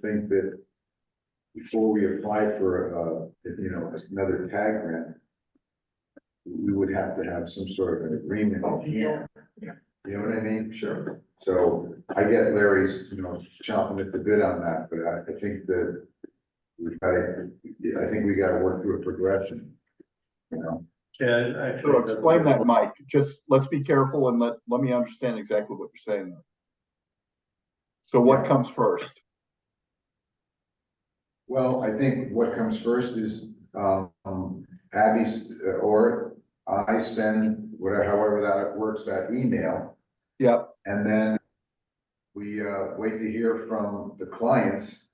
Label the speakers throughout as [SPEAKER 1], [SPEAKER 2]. [SPEAKER 1] think that before we apply for, uh, you know, another tag grant, we would have to have some sort of an agreement.
[SPEAKER 2] Oh, Yeah.
[SPEAKER 1] You know what I mean? Sure. So I get Larry's, you know, chomping at the bit on that, but I, I think that we've got, to- I think we gotta work through a progression. You know,
[SPEAKER 3] Yeah, I- I. think
[SPEAKER 2] So
[SPEAKER 3] that's-
[SPEAKER 2] explain that, Mike, just, let's be careful and let, let me understand exactly what you're saying. there. So what comes first?
[SPEAKER 1] well, I think what comes first is, um, Abby's, uh, or I send whatever, however that works, that email.
[SPEAKER 2] Yep.
[SPEAKER 1] And then we, uh, wait to hear from the clients.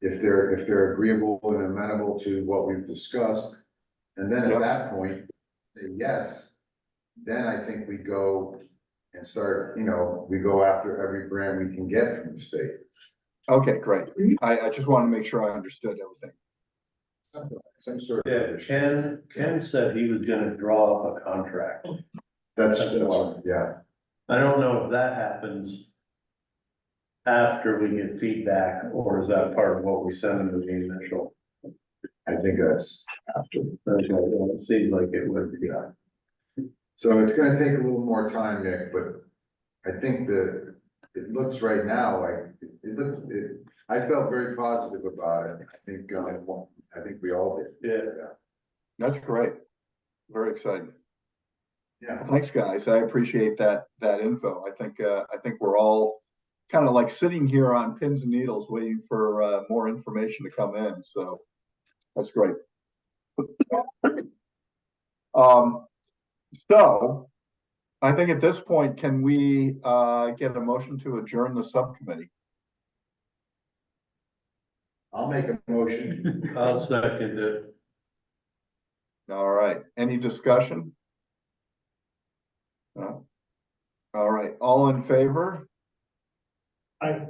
[SPEAKER 1] If they're, if they're agreeable and amenable to what we've discussed. And then at
[SPEAKER 2] Yep.
[SPEAKER 1] that point, say yes, then I think we go and start, you know, we go after every grant we can get from the state.
[SPEAKER 2] Okay, great. I, I just wanted to make sure I understood everything.
[SPEAKER 1] Some sort of.
[SPEAKER 3] Yeah, Ken, Ken said he was gonna draw up a contract.
[SPEAKER 1] That's,
[SPEAKER 3] That's one.
[SPEAKER 1] yeah,
[SPEAKER 3] I don't know if that happens after we get feedback, or is that part of what we send them to the initial?
[SPEAKER 1] I think that's after.
[SPEAKER 3] Okay, well, It seems like it would be.
[SPEAKER 1] So it's gonna take a little more time, Nick, but I think that it looks right now like, it it looks, it, I felt very positive about it. I think, um, I think we all did.
[SPEAKER 3] Yeah.
[SPEAKER 2] That's great. Very exciting.
[SPEAKER 1] Yeah,
[SPEAKER 2] Thanks, guys. I appreciate that, that info. I think, uh, I think we're all kind of like sitting here on pins and needles waiting for, uh, more information to come in, so that's great. Um, so I think at this point, can we, uh, get a motion to adjourn the subcommittee?
[SPEAKER 1] I'll make a motion.
[SPEAKER 3] I'll second it.
[SPEAKER 2] All right, any discussion? No? All right, all in favor?
[SPEAKER 3] Aye.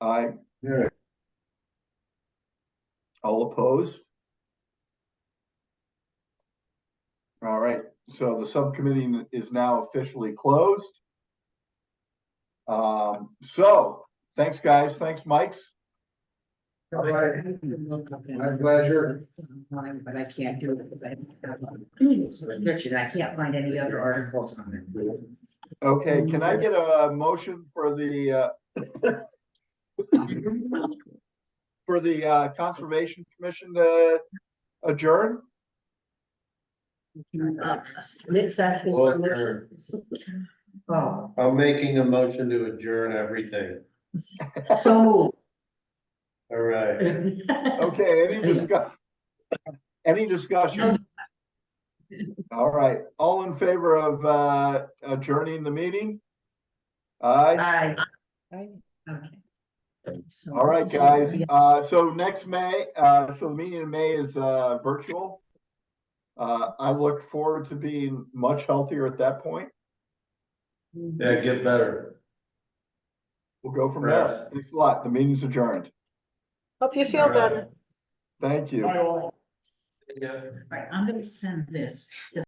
[SPEAKER 2] Aye.
[SPEAKER 1] Yeah,
[SPEAKER 2] All opposed? All right, so the subcommittee is now officially closed. Um, so, thanks, guys, thanks, Mikes.
[SPEAKER 1] all right. My pleasure.
[SPEAKER 4] Online, But I can't do it because I haven't. Richard, I can't find any other articles on it.
[SPEAKER 2] Okay, can I get a motion for the, uh, for the, uh, Conservation Commission to adjourn?
[SPEAKER 4] Uh, Nick's asking. for a motion. Oh,
[SPEAKER 3] I'm making a motion to adjourn everything.
[SPEAKER 4] so moved.
[SPEAKER 3] All right.
[SPEAKER 2] Okay, any discuss, any discussion? All right, all in favor of, uh, adjourning the meeting? Aye,
[SPEAKER 4] Aye. Okay. So
[SPEAKER 2] all right,
[SPEAKER 4] this is-
[SPEAKER 2] guys, uh, so next May, uh, so the meeting in May is, uh, virtual. Uh, I look forward to being much healthier at that point.
[SPEAKER 3] Yeah, get better.
[SPEAKER 2] We'll go from there.
[SPEAKER 3] Right.
[SPEAKER 2] Thanks a lot. The meeting's adjourned.
[SPEAKER 5] Hope you feel
[SPEAKER 3] All right.
[SPEAKER 5] better.
[SPEAKER 2] Thank you.
[SPEAKER 3] Yeah.
[SPEAKER 4] All right, I'm gonna send this.